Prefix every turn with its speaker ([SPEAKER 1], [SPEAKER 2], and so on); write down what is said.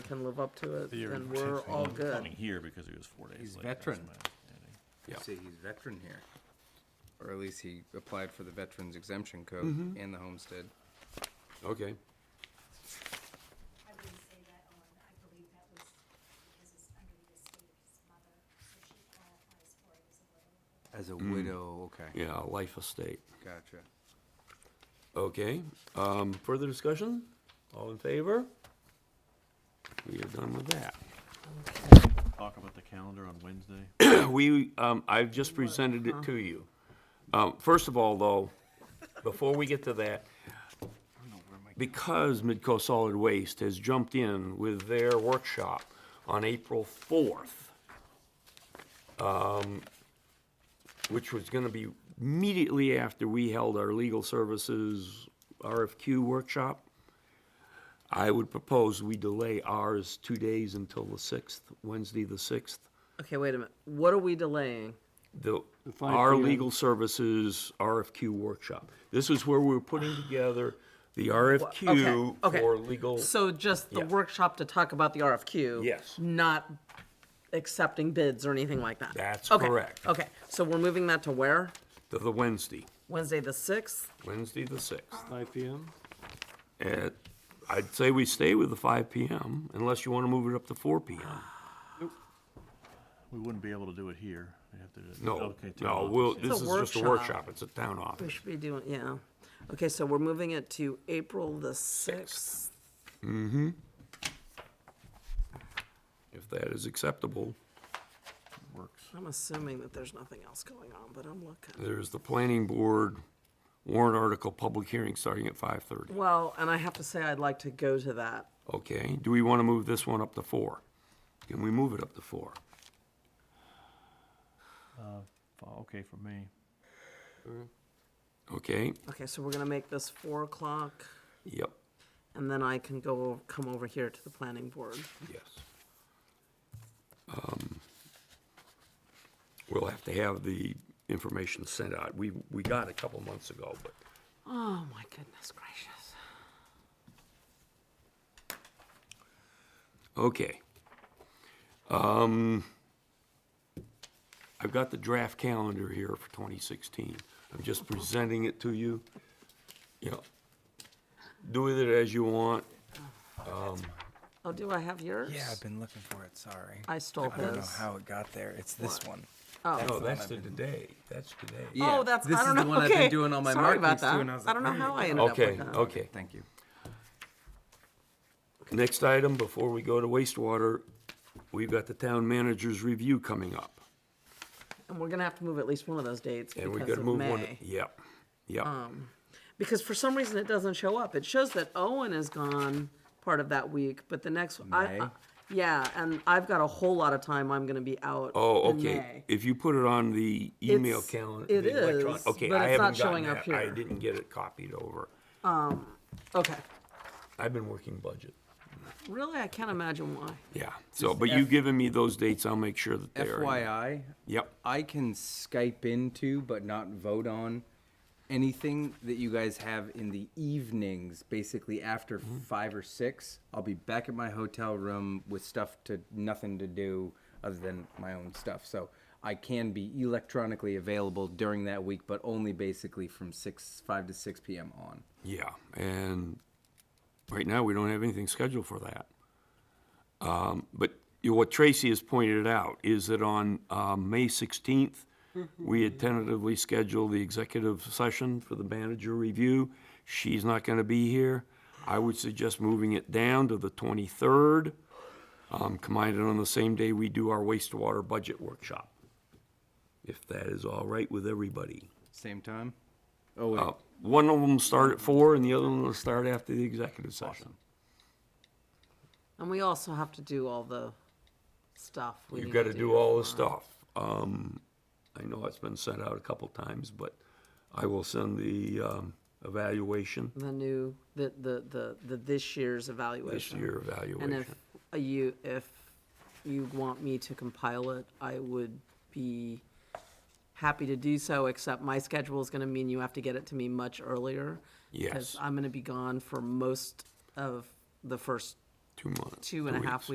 [SPEAKER 1] can live up to it,
[SPEAKER 2] The year
[SPEAKER 1] then
[SPEAKER 2] was
[SPEAKER 1] we're all
[SPEAKER 2] sixteen.
[SPEAKER 1] good.
[SPEAKER 3] Coming here because he was four days late.
[SPEAKER 4] He's
[SPEAKER 3] that's
[SPEAKER 4] veteran.
[SPEAKER 3] my understanding.
[SPEAKER 4] Yeah.
[SPEAKER 5] See, he's veteran here. Or at least he applied for the Veterans Exemption Code and the Homestead.
[SPEAKER 4] Okay.
[SPEAKER 6] I wouldn't say that on, I believe that was because it's under the estate of his mother, so she qualifies for it as a
[SPEAKER 5] As
[SPEAKER 6] widow.
[SPEAKER 5] a widow, okay.
[SPEAKER 4] Yeah, life estate.
[SPEAKER 5] Gotcha.
[SPEAKER 4] Okay. Um, further discussion? All in favor? We are done with that.
[SPEAKER 3] Talk about the calendar on Wednesday.
[SPEAKER 4] we, um, I've just presented it to you. Um, first of all, though, before we get to that, because Midco Solid Waste has jumped in with their workshop on April fourth, um, which was gonna be immediately after we held our legal services RFQ workshop, I would propose we delay ours two days until the sixth, Wednesday the sixth,
[SPEAKER 1] Okay, wait a minute. What are we delaying?
[SPEAKER 4] the,
[SPEAKER 7] The 5
[SPEAKER 4] our
[SPEAKER 7] PM.
[SPEAKER 4] legal services RFQ workshop. This is where we were putting together the RFQ
[SPEAKER 1] okay.
[SPEAKER 4] for legal.
[SPEAKER 1] So just the
[SPEAKER 4] Yeah.
[SPEAKER 1] workshop to talk about the RFQ?
[SPEAKER 4] Yes.
[SPEAKER 1] Not accepting bids or anything like that?
[SPEAKER 4] That's
[SPEAKER 1] Okay,
[SPEAKER 4] correct.
[SPEAKER 1] Okay, so we're moving that to where?
[SPEAKER 4] The, the Wednesday,
[SPEAKER 1] Wednesday, the sixth?
[SPEAKER 4] Wednesday the sixth.
[SPEAKER 7] Five PM?
[SPEAKER 4] At, I'd say we stay with the five PM unless you want to move it up to four PM.
[SPEAKER 3] We wouldn't be able to do it here. We'd have to. do it-
[SPEAKER 4] No,
[SPEAKER 3] okay, take it
[SPEAKER 4] no,
[SPEAKER 3] off.
[SPEAKER 4] we'll,
[SPEAKER 3] Yeah.
[SPEAKER 1] a
[SPEAKER 4] this is just a
[SPEAKER 1] workshop.
[SPEAKER 4] workshop. It's a town office.
[SPEAKER 1] We should be doing, yeah. Okay, so we're moving it to April the sixth.
[SPEAKER 4] If that is acceptable,
[SPEAKER 3] Works.
[SPEAKER 1] I'm assuming that there's nothing else going on, but I'm looking.
[SPEAKER 4] there's the planning board warrant article public hearing starting at five thirty.
[SPEAKER 1] Well, and I have to say, I'd like to go to that.
[SPEAKER 4] Okay, do we want to move this one up to four? Can we move it up to four?
[SPEAKER 3] Fi- Okay for me.
[SPEAKER 4] Okay,
[SPEAKER 1] Okay, so we're gonna make this four o'clock,
[SPEAKER 4] yep,
[SPEAKER 1] and then I can go, come over here to the planning board.
[SPEAKER 4] yes. Um, We'll have to have the information sent out. We, we got a couple months ago, but
[SPEAKER 1] Oh, my goodness gracious.
[SPEAKER 4] Okay. Um, I've got the draft calendar here for 2016. I'm just presenting it to you. You know, do with it as you want.
[SPEAKER 1] Oh, do I have yours?
[SPEAKER 5] Yeah, I've been looking for it, sorry.
[SPEAKER 1] I stole
[SPEAKER 5] I don't know
[SPEAKER 1] his.
[SPEAKER 5] how it got there. It's this one.
[SPEAKER 4] No, that's the today, that's today.
[SPEAKER 1] Oh, that's, I don't know, okay.
[SPEAKER 5] This is the one I've been doing all my
[SPEAKER 1] Sorry about
[SPEAKER 5] markings to,
[SPEAKER 1] that.
[SPEAKER 5] and I was
[SPEAKER 1] I
[SPEAKER 5] like, "Oh,
[SPEAKER 1] don't know how I ended up
[SPEAKER 4] Okay,
[SPEAKER 1] with uh, that.
[SPEAKER 4] okay.
[SPEAKER 5] Thank you.
[SPEAKER 4] Next item, before we go to wastewater, we've got the town manager's review coming up.
[SPEAKER 1] And we're gonna have to move at least one of those dates
[SPEAKER 4] And we
[SPEAKER 1] because
[SPEAKER 4] gotta
[SPEAKER 1] of
[SPEAKER 4] move one,
[SPEAKER 1] May. Um,
[SPEAKER 4] yep, yep.
[SPEAKER 1] Because for some reason it doesn't show up. It shows that Owen is gone part of that week, but the next, I,
[SPEAKER 5] May?
[SPEAKER 1] I- yeah, and I've got a whole lot of time I'm gonna be out
[SPEAKER 4] Oh,
[SPEAKER 1] in
[SPEAKER 4] okay.
[SPEAKER 1] May.
[SPEAKER 4] If you put it on the email
[SPEAKER 1] It's-
[SPEAKER 4] calendar.
[SPEAKER 1] it
[SPEAKER 4] the electron-
[SPEAKER 1] is,
[SPEAKER 4] Okay,
[SPEAKER 1] but
[SPEAKER 4] I
[SPEAKER 1] it's not
[SPEAKER 4] haven't gotten
[SPEAKER 1] showing up
[SPEAKER 4] that. I
[SPEAKER 1] here.
[SPEAKER 4] didn't get it copied over.
[SPEAKER 1] Okay,
[SPEAKER 4] I've been working budget.
[SPEAKER 1] really, I can't imagine why.
[SPEAKER 4] Yeah, so, but you giving me those dates, I'll make sure that they're. in.
[SPEAKER 5] FYI,
[SPEAKER 4] Yep,
[SPEAKER 5] I can Skype into but not vote on anything that you guys have in the evenings, basically after five or six. I'll be back at my hotel room with stuff to nothing to do other than my own stuff. So I can be electronically available during that week, but only basically from six five to six PM on.
[SPEAKER 4] yeah, and right now, we don't have anything scheduled for that. Um, but you know, what Tracy has pointed out is that on, um, May sixteenth, we had tentatively scheduled the executive session for the manager review. She's not gonna be here. I would suggest moving it down to the twenty-third, um, combined on the same day we do our wastewater budget workshop. If that is all right with everybody.
[SPEAKER 5] Same time? Oh wait.
[SPEAKER 4] Uh, One of them start at four and the other one will start after the executive session.
[SPEAKER 1] And we also have to do all the stuff. we
[SPEAKER 4] You've
[SPEAKER 1] need
[SPEAKER 4] got to do all this stuff. Um, I know it's been sent out a couple times, but I will send the, um, evaluation,
[SPEAKER 1] The new, the, the, the, the this year's
[SPEAKER 4] this
[SPEAKER 1] evaluation.
[SPEAKER 4] year
[SPEAKER 1] And if
[SPEAKER 4] evaluation.
[SPEAKER 1] uh, you, if you want me to compile it, I would be happy to do so, except my schedule is gonna mean you have to get it to me much earlier.
[SPEAKER 4] Yes.
[SPEAKER 1] Because I'm gonna be gone for most of the first
[SPEAKER 4] two months.
[SPEAKER 1] two and a half
[SPEAKER 4] weeks.